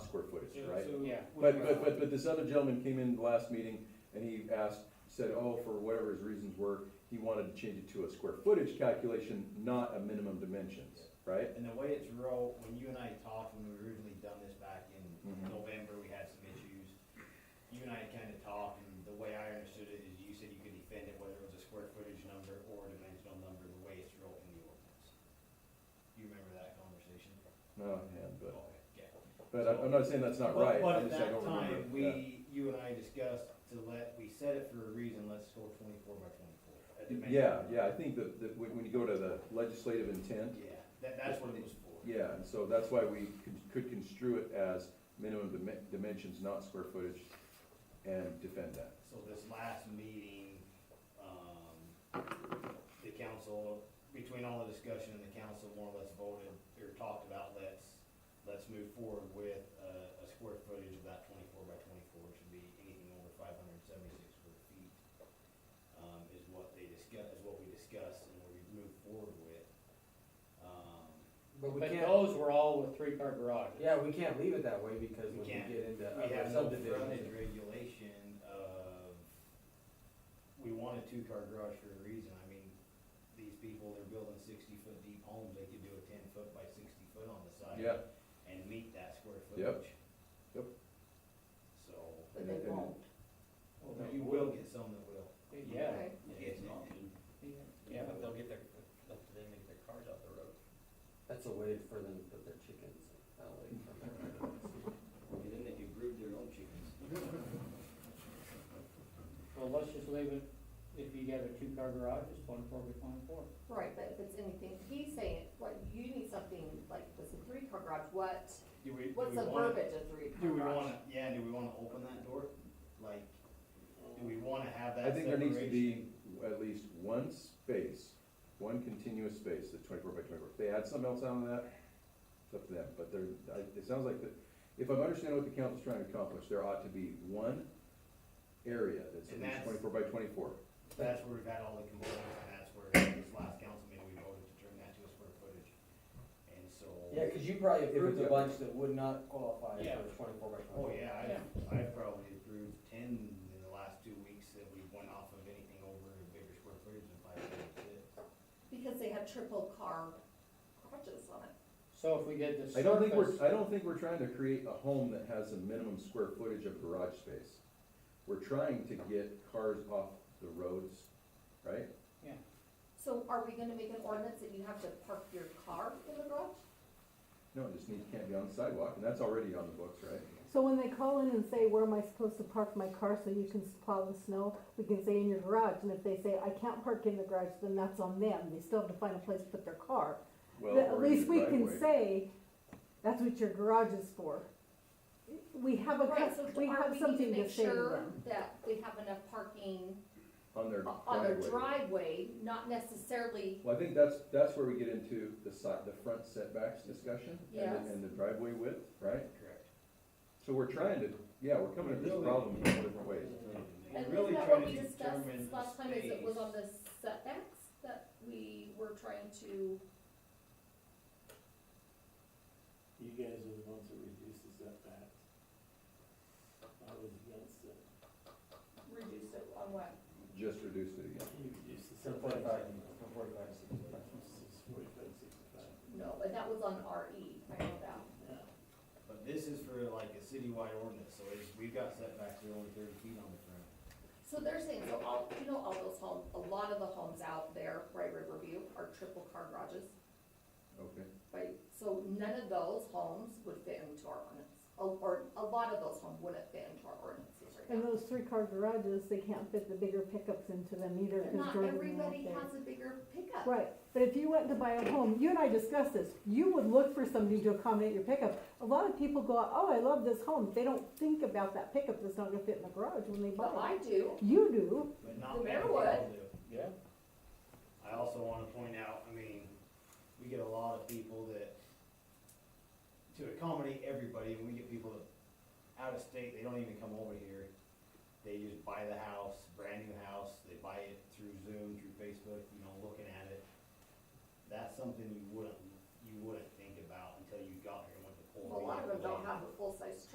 is, right? so Yeah. what But, we- but, but, but this other gentleman came in the last meeting and he asked, said, oh, for whatever his reasons were, he wanted to change it to a square footage calculation, not a minimum dimensions, right? And the way it's wrote, when you and I talked, when we originally done this back in Mhm. November, we had some issues. You and I kinda talked, and the way I understood it is you said you could defend it, whether it was a square footage number or a dimensional number, the way it's wrote in the ordinance. You remember that conversation? No, yeah, but, Okay, yeah. but I'm- I'm not saying that's not right, But I'm at just saying I that don't remember. time, Yeah. we, you and I discussed to let, we said it for a reason, let's go twenty-four by twenty-four. a dimension. Yeah, yeah, I think that, that when when you go to the legislative intent, Yeah, that, that's what it was for. yeah, and so that's why we could- could construe it as minimum dimen- dimensions, not square footage, and defend that. So this last meeting, um, the council, between all the discussion and the council more or less voted, or talked about, let's, let's move forward with a, a square footage of that twenty-four by twenty-four, it should be anything over five hundred and seventy-six square feet. Um, is what they discuss, is what we discussed and what we moved forward with. Um, But we But can't, those were all with three-car garages. yeah, we can't leave it that way because We when we can't. get into We other have no frontage subdivisions. regulation of, we want a two-car garage for a reason, I mean, these people, they're building sixty-foot deep homes, they could do a ten-foot by sixty-foot on the side. Yeah, And meet that square Yep. footage. Yep. So, But they won't. Oh, but you will get some that will. Yeah, Okay. It's not. Yeah, but they'll get their, they'll, then they get their cars out the road. That's a way for them to put their chickens away from their. And then they can brood their own chickens. well, let's just leave it, if you got a two-car garage, it's twenty-four by twenty-four. Right, but if it's anything, he's saying, what, you need something like, this a three-car garage, what, Do we, do what's we the wanna- verbiage of three-car Do we garage? wanna, yeah, do we wanna open that door? Like, do we wanna have that I think there needs to be separation? at least one space, one continuous space, the twenty-four by twenty-four. If they add something else on that, it's up to them, but there, I- it sounds like that, if I'm understanding what the council's trying to accomplish, there ought to be one area that's at And least that's- twenty-four by twenty-four. That's where we've had all the complaints, and that's where this last council meeting, we voted to turn that to a square footage. And so, Yeah, cause you probably If approved it's a a- bunch that would not qualify Yeah. for twenty-four by oh twenty-four. yeah, I, I've probably approved ten in the last two weeks that we went off of anything over a bigger square footage than five hundred six. Because they have triple car garages on it. So if we did the surface. I don't think we're, I don't think we're trying to create a home that has a minimum square footage of garage space. We're trying to get cars off the roads, right? So are we gonna make an ordinance that you have to park your car in the garage? No, it just needs, can't be on the sidewalk, and that's already on the books, right? So when they call in and say, where am I supposed to park my car so you can plow the snow, we can say in your garage, and if they say, I can't park in the garage, then that's on them, they still have to find a place to put their car. Well, But at or in least your we can driveway. say, that's what your garage is for. We have a, Right, so cus- we are have need something to make say to sure them. That we have enough parking On their o- on their driveway. driveway, not necessarily, Well, I think that's, that's where we get into the side, the front setbacks discussion and, Yes. the- and the driveway width, right? Correct. So we're trying to, yeah, we're coming at this problem in all different ways. and We're really isn't that trying what to we discussed determine the last time, is it was on space. the setbacks that we were trying to, You guys are the ones that reduce the setbacks. I was against it. reduce it on what? Just reduce it again. You reduce the From setbacks. forty-five, from forty-five to sixty-five. It's Forty-five, sixty-five. No, but that was on RE, I know that. Yeah. But this is for like a citywide ordinance, so it's, we've got setbacks, they're only thirty feet on the front. So they're saying, so all, you know, all those homes, a lot of the homes out there, right, Riverview, are triple car garages, Okay. right? So none of those homes would fit into our ordinance, or, or a lot of those homes wouldn't fit into our ordinances right And now. those three-car garages, they can't fit the bigger pickups into them either, But cause not Jordan went everybody there. has a bigger pickup. Right, but if you went to buy a home, you and I discussed this, you would look for somebody to accommodate your pickup. A lot of people go, oh, I love this home, they don't think about that pickup that's not gonna fit in the garage when they But I buy do, it. You do, But not The what mayor we all would. do. Yeah. I also wanna point out, I mean, we get a lot of people that, to accommodate everybody, and we get people that, out of state, they don't even come over here. They just buy the house, brand new house, they buy it through Zoom, through Facebook, you know, looking at it. That's something you wouldn't